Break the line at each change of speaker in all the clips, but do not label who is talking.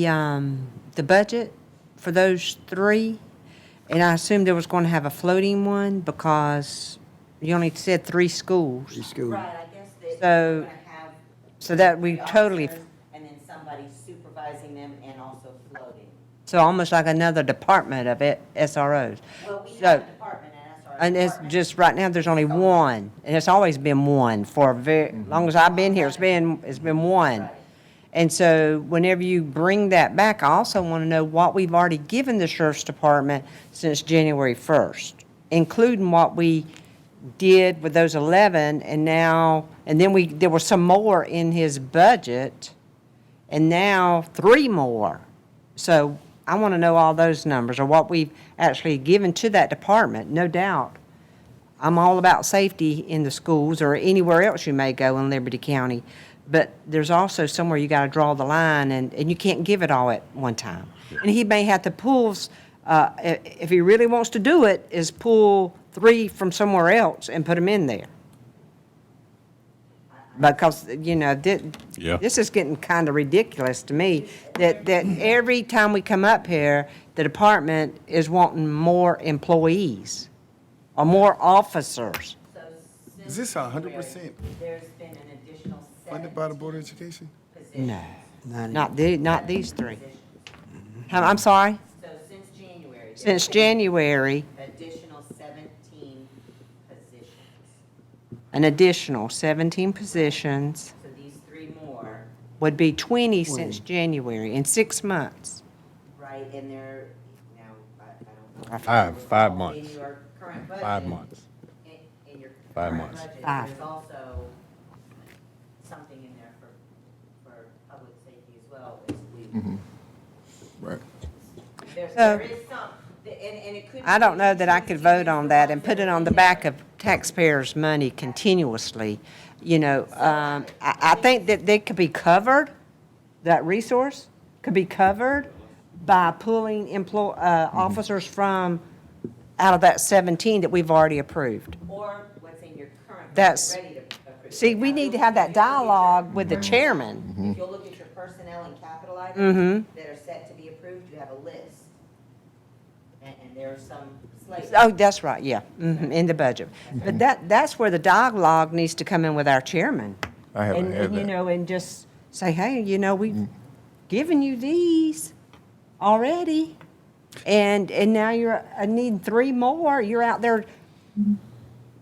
the, um, the budget for those three, and I assumed there was going to have a floating one because you only said three schools.
school.
Right, I guess that
So-
you're gonna have.
so that we
three
totally-
officers And then somebody supervising them and also floating.
So almost like another department of it, SROs.
Well, we
So-
have a department and SRO.
And it's
department.
just, right now, there's only one, and it's always been one for very, long as I've been here, it's been, it's been one. And so whenever you bring that back, I also want to know what we've already given the sheriff's department since January first, including what we did with those eleven, and now, and then we, there were some more in his budget, and now three more. So I want to know all those numbers, or what we've actually given to that department, no doubt. I'm all about safety in the schools or anywhere else you may go in Liberty County, but there's also somewhere you got to draw the line, and, and you can't give it all at one time. And he may have to pull, s- uh, i- if he really wants to do it, is pull three from somewhere else and put them in there. Because, you know, thi-
Yeah.
this is getting kind of ridiculous to me, that, that every time we come up here, the department is wanting more employees or more officers.
So since
Is this a hundred
February, There's been an additional
Funded by the Board of
seventeen
Education?
positions.
No, not the, not these three.
Positions.
I'm, I'm sorry,
So since January. there's
since
been
January,
Additional seventeen positions.
an additional seventeen positions
So these three more,
would be twenty since January, in six months.
right, and they're, now, I I don't know.
Five- five months.
In your current budget.
Five months.
In in your
Five
current
months.
budget,
Five.
there's also something in there for, for public safety as well. as
Mm-hmm.
we-
Right.
There's,
So-
there is some, and, and it could.
Uh, I don't know that I
be
could
used
vote
to
on
use
that
the
and put it
ones
on the
are in
back
there.
of taxpayers' money continuously. You know, um, I, I think that they could be covered, that resource could be covered by pulling employ, uh, officers from, out of that seventeen that we've already approved.
Or what's in your current. budget
That's-
ready to approve.
See,
Now,
we need to have
if
that
you look at your-
dialogue with the chairman.
Mm-hmm.
If you'll look at your personnel and capital items
Mm-hmm.
that are set to be approved, you have a list. And, and there are some slight.
Oh, that's right, yeah, mhm, in the budget. But that, that's where the dialogue needs to come in with our chairman.
I haven't
And,
had
and, you
that.
know, and just say, hey, you know, we've given you these already, and, and now you're, I need three more, you're out there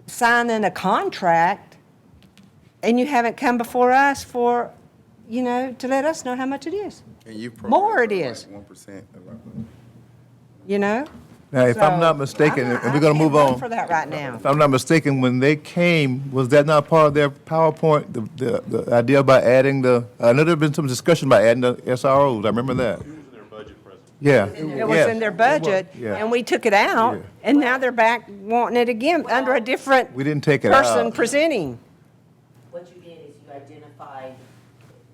signing a contract, and you haven't come before us for, you know, to let us know how much it is,
And you
More it is.
One percent.
you know?
Now, if
So,
I'm not mistaken,
I'm not-
and
I
we're gonna
can't
move
vote
on.
For that right now.
If I'm not mistaken, when they came, was that not part of their PowerPoint, the, the, the idea about adding the, I know there's been some discussion about adding the SROs, I remember that. Yeah.
It was in their budget,
Yeah.
and we took it out,
Yeah.
and now they're back wanting it again, under a different
We didn't take it
person
out.
presenting.
What you did is you identified,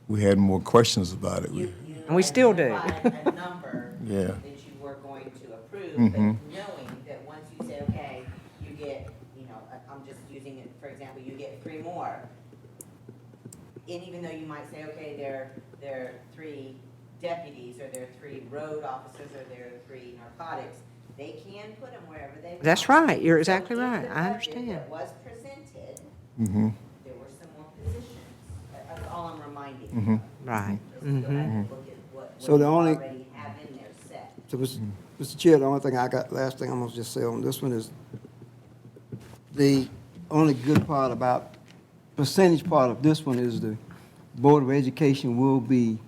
We had more questions about it.
you.
We-
you
And we still do.
identified A number.
Yeah.
That you were going to approve, but knowing that once you say, okay, you get, you know, I- I'm just using it, for example, you get three more. And even though you might say, okay, there, there are three deputies, or there are three road officers, or there are three narcotics, they can put them wherever they want.
That's right. You're
So
exactly
in the
right. I
budget
understand.
That was presented.
mm-hmm.
There were some more positions. That- That's all I'm reminding you. of.
Right.
Just go back and look at what,
Mm-hmm. So
what
the
you
only-
already have in there set.
So, Mr. Mr. Chair, the only thing I got, last thing I'm gonna just say on this one is, the only good part about, percentage part of this one is the Board of Education will be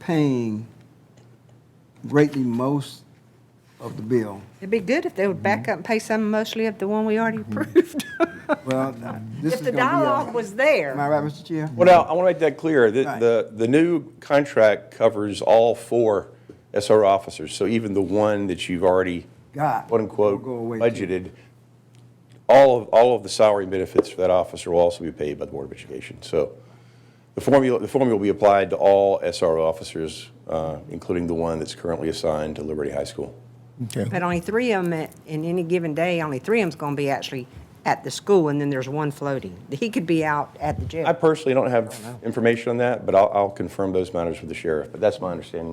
paying greatly most of the bill.
It'd be good if they would back up and pay some mostly of the one we already approved.
Well, this
If
is
the
gonna be.
dialogue was there.
Am I right, Mr. Chair?
Well, now, I want to make that clear. The,
Right.
the, the new contract covers all four SR officers. So even the one that you've already,
God,
quote unquote,
will go away too.
budgeted, all of, all of the salary and benefits for that officer will also be paid by the Board of Education. So the formula, the formula will be applied to all SR officers, uh, including the one that's currently assigned to Liberty High School.
Okay.
But only three of them, in any given day, only three of them's going to be actually at the school, and then there's one floating. He could be out at the jail.
I personally don't have information on that, but I'll, I'll confirm those matters with the sheriff. But that's my understanding